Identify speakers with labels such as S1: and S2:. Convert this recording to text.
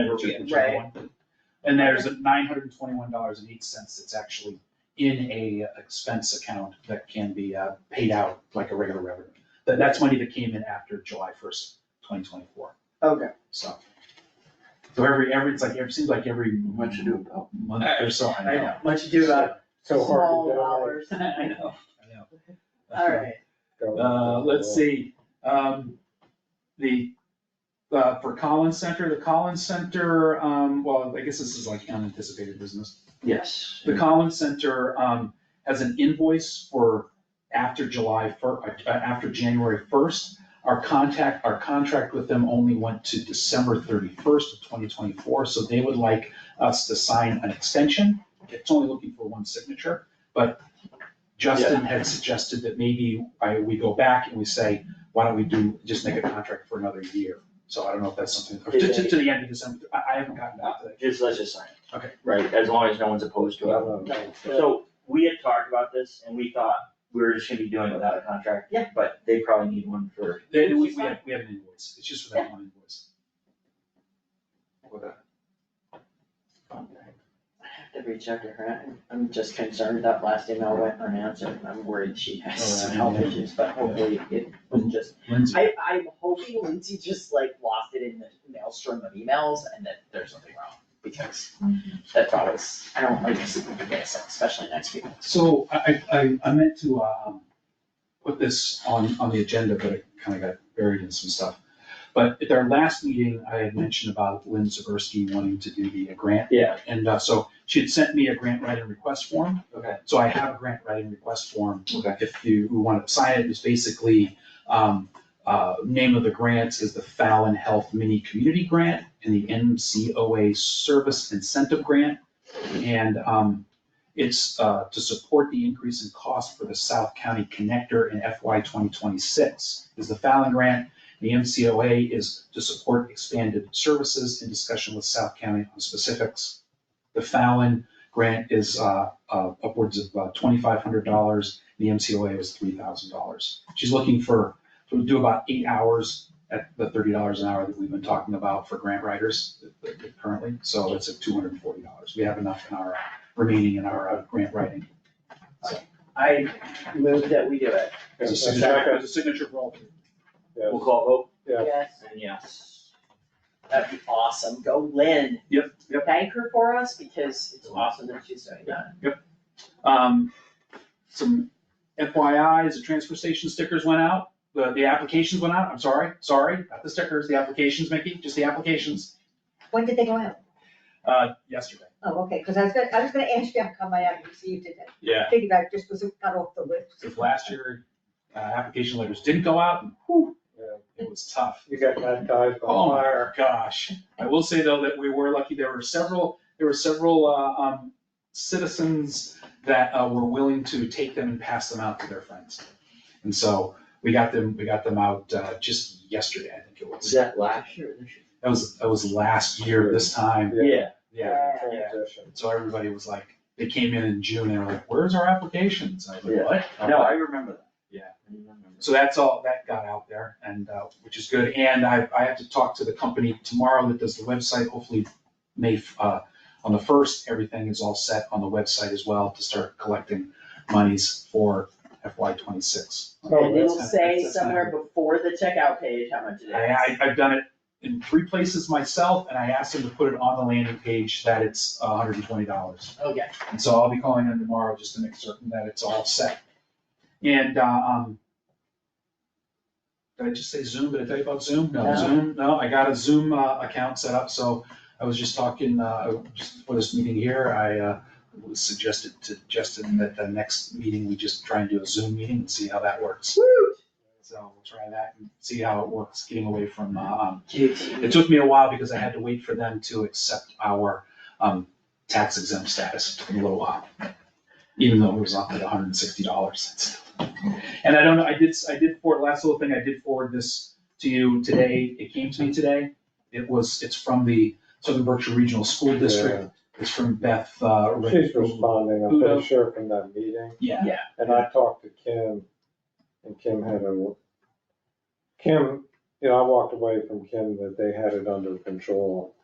S1: which is
S2: Yeah.
S1: which is one. And there's nine hundred and twenty-one dollars and eight cents that's actually in a expense account that can be uh, paid out like a regular revenue. That, that's money that came in after July first, twenty twenty-four,
S3: Okay,
S1: so. So every, every, it's like, it seems like every
S2: Much ado about.
S1: month or so, I
S3: I
S1: know.
S3: know, much ado about
S4: So hard
S3: uh, small
S4: to die.
S3: hours.
S1: I know, I know.
S3: All right,
S1: Uh, let's see, um, the, uh, for Collins Center, the Collins Center, um, well, I guess this is like unanticipated business.
S2: Yes.
S1: The Collins Center, um, has an invoice for after July fir, uh, after January first. Our contact, our contract with them only went to December thirty-first of twenty twenty-four, so they would like us to sign an extension. It's only looking for one signature, but Justin had suggested that maybe I, we go back and we say, why don't we do, just make a contract for another year? So I don't know if that's something, or to, to- to the end of December, I, I haven't gotten back to that.
S2: Just, let's just sign it,
S1: Okay,
S2: right, as long as no one's opposed to it. So, we had talked about this and we thought we were just gonna be doing without a contract.
S3: Yeah.
S2: But they probably need one for,
S1: They- we, we have, we have an invoice, it's just for that one invoice.
S3: I have to reach out to her, I'm- I'm just concerned that last email went unanswered, and I'm worried she has some health
S1: Alright.
S3: issues, but hopefully it was just.
S1: Lindsay.
S3: I, I'm hoping Lindsay just like lost it in the maelstrom of emails and that there's nothing wrong, because that's always, I don't like this, especially next week.
S1: So I, I- I, I meant to, um, put this on, on the agenda, but it kind of got buried in some stuff. But at our last meeting, I had mentioned about Lynn Zaversky wanting to do the grant.
S2: Yeah.
S1: And, uh, so she had sent me a grant writing request form.
S2: Okay.
S1: So I have a grant writing request form.
S2: Okay.
S1: If you want to sign it, it's basically, um, uh, name of the grant is the Fallon Health Mini Community Grant and the MCOA Service Incentive Grant. And, um, it's uh, to support the increase in cost for the South County Connector in FY 2026 is the Fallon Grant. The MCOA is to support expanded services in discussion with South County on specifics. The Fallon Grant is uh, uh, upwards of uh, $2,500. The MCOA was $3,000. She's looking for, to do about eight hours at the $30 an hour that we've been talking about for grant writers currently. So it's at $240. We have enough in our remaining in our uh, grant writing.
S3: I move that we do it.
S1: As a
S4: Yes.
S1: signature, as a signature for all three.
S2: we'll call a vote,
S4: Yeah.
S3: Yes.
S2: and yes.
S3: That'd be awesome, go Lynn.
S1: Yep, yep.
S3: Thank her for us, because it's awesome that she's doing that.
S1: Um, some FYIs, the transfer station stickers went out, the, the applications went out, I'm sorry, sorry, not the stickers, the applications, Mickey, just the applications,
S5: When did they go out?
S1: uh, yesterday.
S5: Oh, okay, because I was gonna, I was gonna ask you how come I haven't received it.
S1: Yeah.
S5: I Figured I just was cut off the list.
S1: If last year, uh, application letters didn't go out, and whew, it was tough.
S4: You got baptized
S1: Oh
S4: on fire.
S1: my gosh. I will say though that we were lucky, there were several, there were several uh, um, citizens that uh, were willing to take them and pass them out to their friends. And so we got them, we got them out uh, just yesterday, I think it was.
S2: that last year or this year?
S1: That was, that was last year this time,
S4: Yeah.
S2: Yeah,
S1: yeah.
S4: Transition.
S1: So everybody was like, they came in in June, they were like, where's our applications? I was
S2: Yeah.
S1: like, what?
S2: no, I remember that.
S1: Yeah.
S2: I remember.
S1: So that's all, that got out there and, uh, which is good. And I, I have to talk to the company tomorrow that does the website, hopefully May, f- uh, on the first, everything is all set on the website as well to start collecting monies for FY twenty-six.
S4: Oh,
S3: And it'll
S1: that's-
S3: say
S1: that's- that's-
S3: somewhere before the checkout page how much it is.
S1: I, I, I've done it in three places myself and I asked them to put it on the landing page that it's hundred and twenty dollars.
S3: Okay,
S1: And so I'll be calling them tomorrow just to make certain that it's all set. And, uh, um, did I just say Zoom? Did I tell you about Zoom? No,
S3: No.
S1: Zoom, no, I got a Zoom, uh, account set up, so I was just talking, uh, just for this meeting here, I, uh, suggested to Justin that the next meeting, we just try and do a Zoom meeting and see how that works. So we'll try that and see how it works, getting away from, uh, um, it took me a while because I had to wait for them to accept our um, tax exempt status. It took me a little while. Even though it was up at hundred and sixty dollars. And I don't know, I did, I did forward, last little thing, I did forward this to you today. It came to me today. It was, it's from the Southern Berkshire Regional School District. It's from Beth. uh, Rick-
S4: She's responding, I'm
S1: Who
S4: pretty
S1: knows?
S4: sure from that meeting,
S1: Yeah,
S4: and I talked to Kim, and Kim had a, Kim, you know, I walked away from Kim that they had it under control.